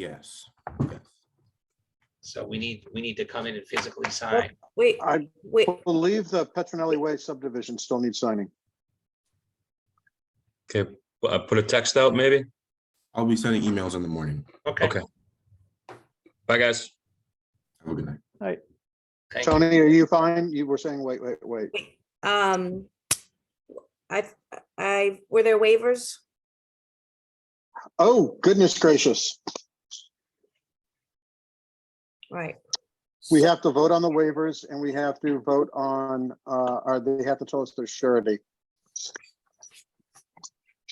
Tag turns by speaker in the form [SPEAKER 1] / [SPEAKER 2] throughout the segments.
[SPEAKER 1] Yes.
[SPEAKER 2] So we need, we need to come in and physically sign.
[SPEAKER 3] Wait,
[SPEAKER 4] I
[SPEAKER 3] wait,
[SPEAKER 4] believe the Petronelli Way subdivision still needs signing.
[SPEAKER 5] Okay, uh, put a text out maybe?
[SPEAKER 1] I'll be sending emails in the morning.
[SPEAKER 2] Okay.
[SPEAKER 5] Okay. Bye, guys.
[SPEAKER 1] Have a good night.
[SPEAKER 2] thank you.
[SPEAKER 4] Tony, are you fine? You were saying, wait, wait, wait.
[SPEAKER 3] wait, um, I, I, were there waivers?
[SPEAKER 4] Oh, goodness gracious.
[SPEAKER 3] Right,
[SPEAKER 4] We have to vote on the waivers and we have to vote on, uh, or they have to tell us their surety.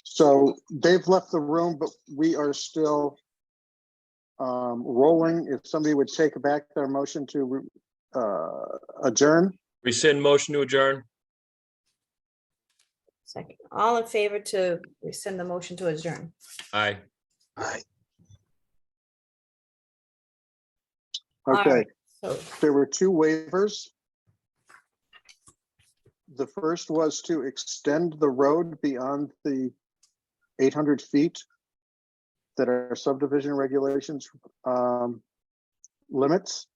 [SPEAKER 4] So they've left the room, but we are still um, rolling. If somebody would take back their motion to, uh, adjourn.
[SPEAKER 5] Rescind motion to adjourn.
[SPEAKER 3] second, all in favor to rescind the motion to adjourn?
[SPEAKER 5] Aye.
[SPEAKER 3] All
[SPEAKER 4] Okay.
[SPEAKER 3] right, So,
[SPEAKER 4] there were two waivers. The first was to extend the road beyond the eight hundred feet that our subdivision regulations um, limits.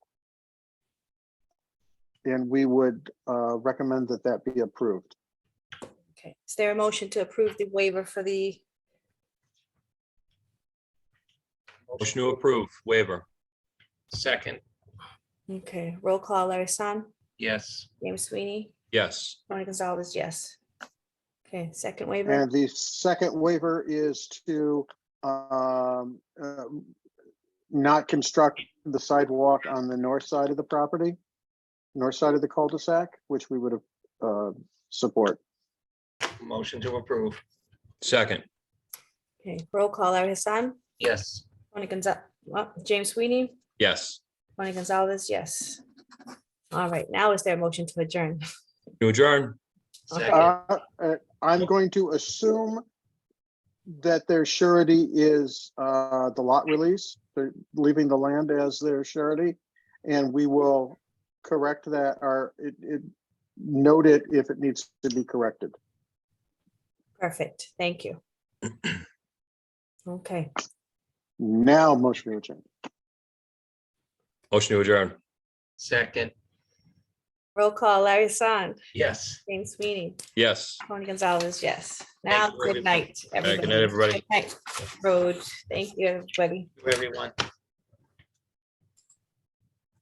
[SPEAKER 4] And we would uh, recommend that that be approved.
[SPEAKER 3] okay, is there a motion to approve the waiver for the,
[SPEAKER 5] Motion to approve waiver.
[SPEAKER 2] Second,
[SPEAKER 3] okay, roll call, Larry San,
[SPEAKER 2] yes.
[SPEAKER 3] James Sweeney,
[SPEAKER 5] Yes.
[SPEAKER 3] Tony Gonzalez, yes. Okay, second waiver,
[SPEAKER 4] And the second waiver is to um, um, not construct the sidewalk on the north side of the property, north side of the cul-de-sac, which we would have uh, support.
[SPEAKER 2] Motion to approve,
[SPEAKER 5] Second.
[SPEAKER 3] okay, roll call, Larry Hassan,
[SPEAKER 2] yes.
[SPEAKER 3] Tony Gonzalez, James Sweeney,
[SPEAKER 5] Yes.
[SPEAKER 3] Tony Gonzalez, yes. All right, now is there a motion to adjourn?
[SPEAKER 5] To adjourn.
[SPEAKER 2] Second,
[SPEAKER 4] Uh, uh, I'm going to assume that their surety is uh, the lot release, they're leaving the land as their surety. And we will correct that or it- it- note it if it needs to be corrected.
[SPEAKER 3] Perfect, thank you. Okay,
[SPEAKER 4] Now, motion to adjourn.
[SPEAKER 5] Motion to adjourn.
[SPEAKER 2] second,
[SPEAKER 3] roll call, Larry Hassan,
[SPEAKER 2] yes.
[SPEAKER 3] James Sweeney,
[SPEAKER 5] Yes.
[SPEAKER 3] Tony Gonzalez, yes. Now,
[SPEAKER 2] you, everybody.
[SPEAKER 3] good night.
[SPEAKER 5] right, good night, everybody.
[SPEAKER 3] Good night, Road, thank you, everybody.
[SPEAKER 2] Everyone.